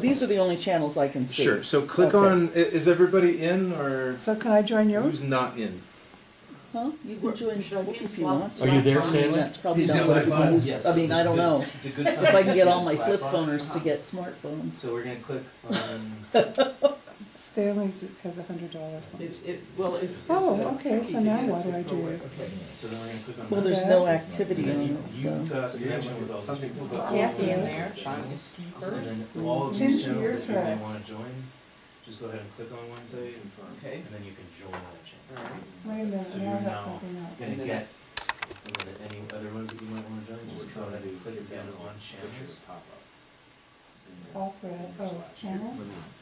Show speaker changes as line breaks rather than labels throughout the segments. These are the only channels I can see.
Sure. So click
Okay.
on. i- Is everybody in or
So can I join yours?
who's not in?
Huh? You can join if you want.
Are you there, Stanley?
That's probably
He's
not
got
what
my
I
phone.
use. I mean, I don't know.
It's a good sign.
If I can
He's
get
got
all my
Slack
flip
on.
phoners to get smartphones.
So we're gonna click on.
Stanley's has a hundred dollar phone.
well, it's.
Oh, okay, so now why do I do it?
Okay, so then we're gonna click on.
Well,
that.
there's no
Okay.
And
activity on
then you-
it, so.
You've got connection with all these
Something's
people.
up.
Kathy in there.
So then all of these
Into your
channels that you may
threads.
wanna join, just go ahead and click on one, say, and
Okay.
and then you can join that channel.
All right.
Wait a minute,
So
now
you're
I've got
now
something else.
Gonna get, and then any other ones that you might wanna join, just go ahead and click again on channels.
All thread, oh, channels?
Um,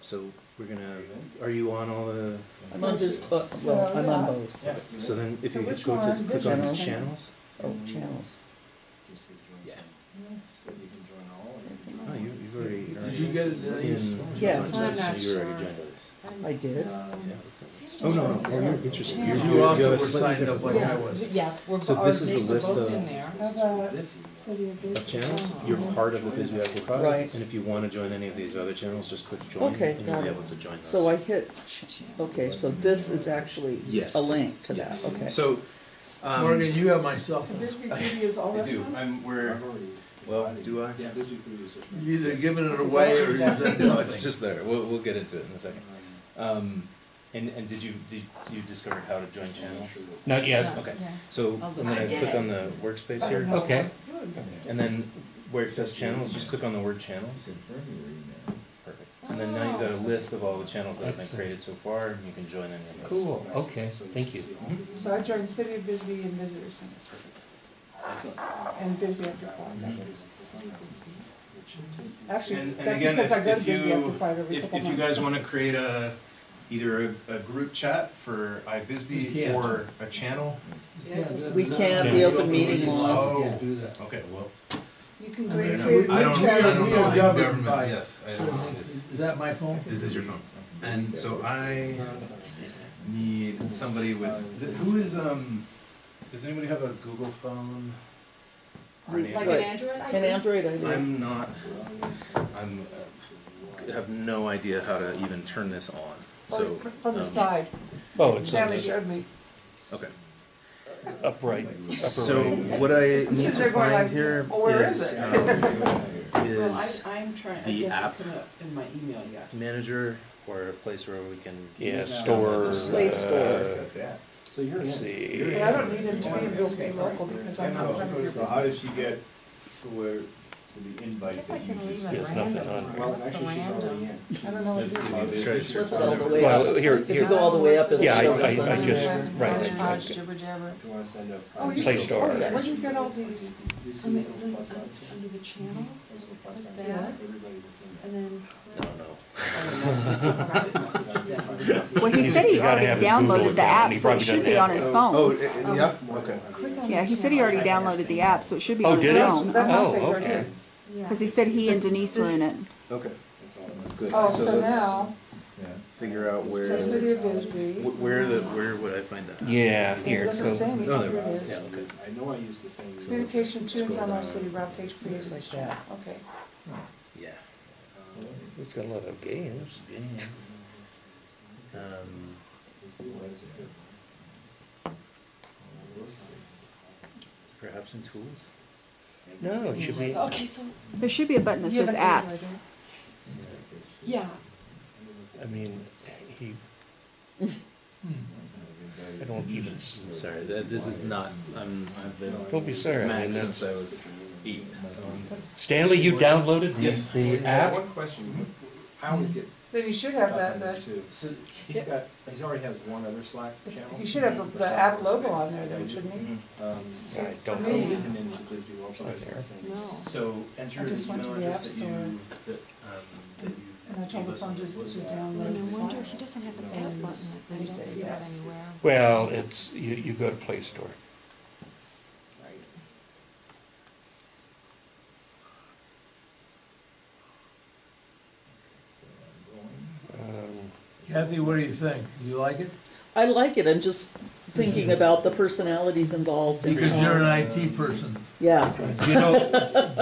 So we're gonna. Are you on all the?
I'm on this, uh, well, I'm on both.
So then, if
So
you
which
go to
one?
click
This
on
one.
these channels.
Oh, channels.
Yeah.
So you can join all of them.
Oh, you, you've already.
Did you get it?
in-
Yeah.
so
I'm not
You're
sure.
already joined this.
I did.
Yeah. Oh no, no, oh, you're interested.
You
You're- you're-
also
you're
were
slightly
signed up
different.
like I was.
Yeah, we're,
So
bo- our
this is the
names are
list
both
of-
in there.
How about
This is.
City of
of
Bisbee?
channels, you're
Uh-huh.
part of the Bisbee Active Cloud.
Right.
And if you want to join any of these other channels, just click join
Okay,
and you'll
got
be
it.
able to join those.
So I hit, ch- okay, so this is actually
Yes.
a link to that,
Yes.
okay.
So, um,
Morgan, you have my cell phone.
Bisbee City is all
I do.
restaurants?
I'm, we're, well, do I?
Yeah, this would be
You're either giving it away or you've done
No, it's
something.
just there. We'll, we'll get into it in a second. Um, and, and did you, did you discover how to join channels?
Not yet.
Okay.
Yeah.
So
Oh,
I'm
I
gonna
get
click
it.
on the workspace here.
Okay.
And then where it says channels, just click on the word channels. Perfect. Oh. And then now you've got a list of all the channels that have been
Excellent.
created so far and you can join any of those.
Cool. Okay. Thank you.
So I joined City of Bisbee and Visitor Center
Excellent.
and Bisbee After Five. that was- Actually,
And- and
that's
again,
because I
if-
go to
if
Bisbee
you-
After Five every
If,
couple
if
months.
you guys wanna create a, either a, a group chat for
You
iBisbee
can't.
or a channel,
We can't, the open meeting law.
Oh.
Yeah, do that.
okay, well,
You can
I
I
create,
don't
create
know, I
a
don't,
group
I
chat.
don't
We
know,
are
I'm
governed by-
government, yes, I don't know this.
Is that my phone?
This is your phone. And so I need somebody with, th- who is, um, does anybody have a Google phone? Or an
Like
Android?
Android, I
And Android, I do.
I'm not, I'm, uh, have no idea how to even turn this on, so.
Or fr- From the
um,
side,
Oh, it's on
Stanley
the
showed me.
Okay.
upright.
So what I need
Since
to
they're going
find
like,
here
"Oh, where is
is,
it?"
um,
Well,
is
I, I'm trying, I
the
guess
app.
it come up in my email yet.
manager or a place where we can.
Yeah, store.
Play store.
uh,
So you're.
Let's
in.
see.
But I don't need him to be in Bisbee local because I'm not part of your
So how
business.
does she get to where, to the invite
Guess I
that you
can leave
just?
Yes,
it
nothing
random.
on
Well,
Well,
What's the
actually, she's already
random?
in.
I don't know what to do.
Let's try to search.
Flip it all the way
Well,
up.
here,
If you
here.
go all the way up, it'll
Yeah, I-
show
I-
us.
I
on
just-
there.
right,
Hodge,
okay.
Hodge, jibber jabber.
If you wanna send a.
Oh, you-
Play Store.
oh, yeah, Well, you get all these,
This
Um,
is
it was
a
like
plus
un-
sign too.
under the channels,
That's what plus
Like
sign is.
that.
Everybody that's in
and then
No, no.
Well,
he said he He's gotta already have his downloaded Google the account, app, and he so it probably should be doesn't on have his it.
Oh, it- it- yeah,
Um,
okay.
click on.
Yeah, he said he already downloaded the app, so it should be
Oh,
on
did
his
it?
phone.
that's
Oh,
just right
okay.
here.
Because he said he and Denise were in it.
Okay,
That's all I'm-
that's good.
Oh,
So
so
let's
now,
Figure out where,
the city of Bisbee.
wh- where the, where would I find that?
Yeah,
It
here.
doesn't say
So,
anything,
No,
here
there,
it
yeah,
is.
okay.
I know I use the same.
Communication to and
Scroll
from our
down.
city, route page created like that, okay.
Yeah.
it's got a lot of games.
Um, Perhaps in tools?
No, Oh, it should be.
Okay, so,
There should be a button that
You
says
have an Android,
apps.
right?
yeah,
I mean, he.
Hmm.
I don't even. s-
Sorry, that, this is not, I'm, I've been on
Don't be sorry. I mean,
Mac
that's-
since I was eight, so I'm-
Stanley, you downloaded
Yes.
the, the app?
One question, I always get
Then you should have
up
that,
on this
that,
too. So he's got, he's already has one other Slack channel.
you should have the- the app logo on there, though, shouldn't you?
Mhm.
Um,
See,
I
for
don't
me,
and then to Bisbee Local,
Right
it's the
there.
same.
no.
So enter
I
the
just went to
email
the
app
App
that you, that,
Store.
um, that you.
and I told the
gave us on
phone to
this list.
to download.
And
the
I
Slack.
wonder, he doesn't have an app button, I don't see that anywhere.
Well, it's, you, you go to Play Store. Um,
Kathy, what do you think? You like it?
I like it, I'm just thinking about the personalities involved. and
Because
all.
you're an IT person.
Yeah.
You know,